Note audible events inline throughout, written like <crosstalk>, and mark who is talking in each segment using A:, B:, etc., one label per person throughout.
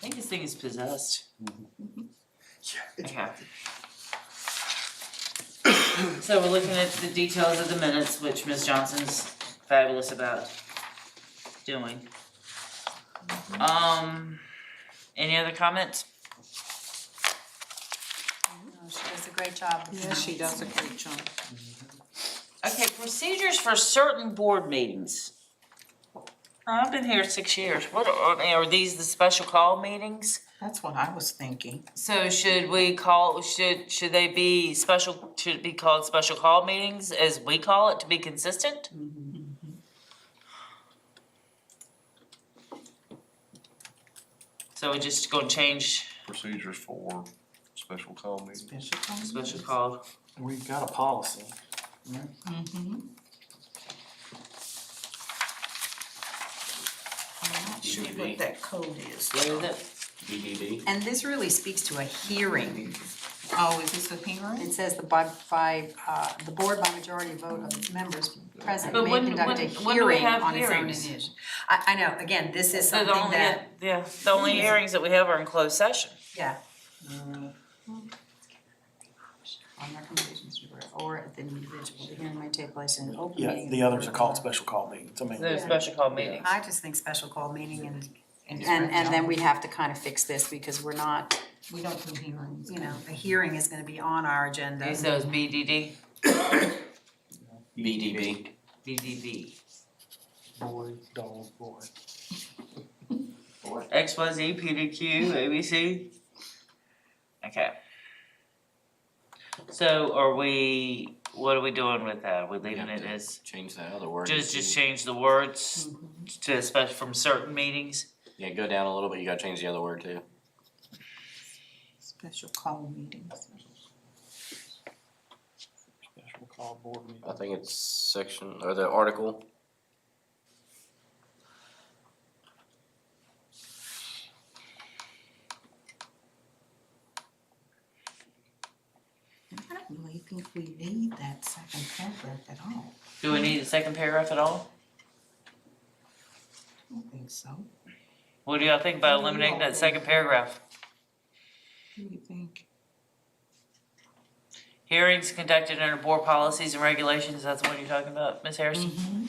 A: think this thing is possessed.
B: It's-
A: Okay. <coughs> So we're looking at the details of the minutes, which Ms. Johnson's fabulous about doing. Um, any other comments?
C: No, Oh, She does a great job.
D: Yeah, she does a great job.
A: Okay, procedures for certain board meetings. I've been here six years, what are, are these the special call meetings?
D: That's what I was thinking.
A: So should we call, should, should they be special, should it be called special call meetings as we call it to be consistent? So we're just gonna change
B: Procedures for special call meetings.
D: Special call.
A: special call,
E: We've got a policy.
C: Mm-hmm.
D: Mhm. I'm not sure what that code is.
A: what is it?
E: BDD.
C: And this really speaks to a hearing.
D: Oh, is this a hearing?
C: It says the by, by, uh, the board by majority vote of its members present
A: But
C: may
A: when-
C: conduct a
A: when- when do we
C: hearing
A: have
C: on its own
A: hearings?
C: initiative. I, I know, again, this is
A: So
C: something
A: the only,
C: that, Hmm.
A: yeah, the only hearings that we have are in closed session.
C: yeah,
E: Mm,
C: on recommendations to the board or at the individual, the hearing may take place in an open
E: Yeah,
C: meeting.
E: the others are called special call meetings, I mean,
A: The special call meetings.
C: I just think special call meeting and, and, and then we have to kind of fix this because we're not,
D: We don't do hearings.
C: you know, a hearing is gonna be on our agenda.
A: Use those BDD,
F: BDB.
A: BDB,
E: boy, dog, boy.
A: XYZ, PDQ, ABC. Okay. So are we, what are we doing with that? Are we leaving it as,
F: Change that other word.
A: just, just change the words to special, from certain meetings?
F: Yeah, go down a little bit, you gotta change the other word too.
D: Special call meetings.
E: Special call board meeting.
F: I think it's section, or the article.
D: I don't really think we need that second paragraph at all.
A: Do we need a second paragraph at all?
D: I don't think so.
A: What do y'all think about eliminating that second paragraph?
D: What do you think?
A: Hearings conducted under board policies and regulations, that's the one you're talking about, Ms. Harrison?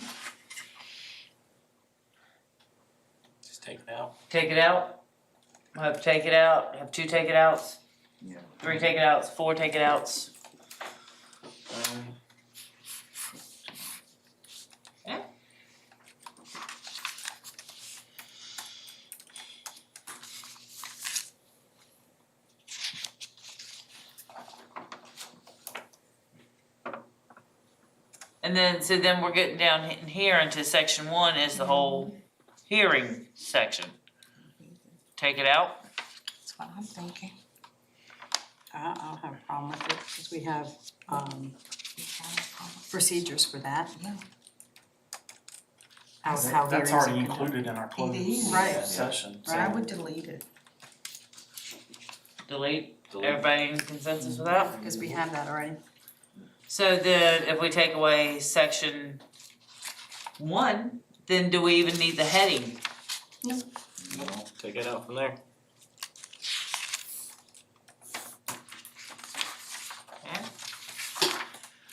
F: Just take it out.
A: Take it out, have take it out, have two take it outs.
B: Yeah.
A: Three take it outs, four take it outs. Yeah. And then, so then we're getting down in here into section one is the whole hearing section. Take it out.
D: That's what I'm thinking.
C: I I don't have a problem with it, because we have um procedures for that.
D: Yeah.
C: How how
E: That's
C: hearings are
E: already
C: conducted.
E: included in our
D: is.
E: closed
C: Right.
E: session, so.
D: But I would delete it.
A: Delete.
F: Delete.
A: Everybody in consensus with that?
C: Because we have that already.
A: So then if we take away section one, then do we even need the heading?
F: Take it out from there.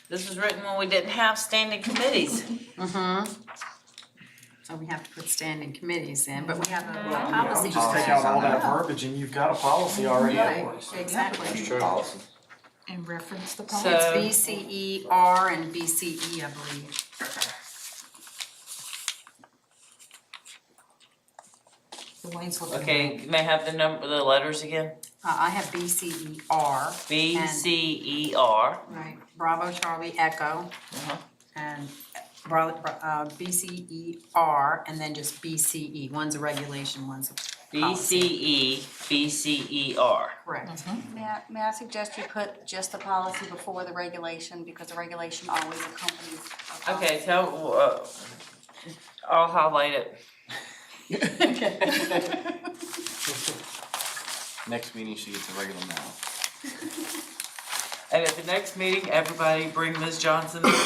A: This was written when we didn't have standing committees.
C: Mm-hmm. So we have to put standing committees in, but we have a
A: Well,
E: Yeah, I would
C: policy.
E: just take out all that verbiage and you've got a policy already at work.
C: Right, exactly.
F: true.
D: And reference the
A: So-
D: policy.
C: It's B C E R and B C E, I believe.
D: Elaine's looking.
A: Okay, may I have the number, the letters again?
C: Uh, I have B C E R.
A: B, C, E, R.
C: Right, Bravo Charlie Echo.
A: Uh-huh.
C: And Bra- Bra- uh, BCER and then just BCE, one's a regulation, one's a
A: B, C, E, B, C, E, R.
C: correct.
G: May I, may I suggest you put just the policy before the regulation, because the regulation always accompanies a policy.
A: Okay, so, uh, I'll highlight it.
F: Next meeting, she gets a regular now.
A: And at the next meeting, everybody bring Ms. Johnson <coughs>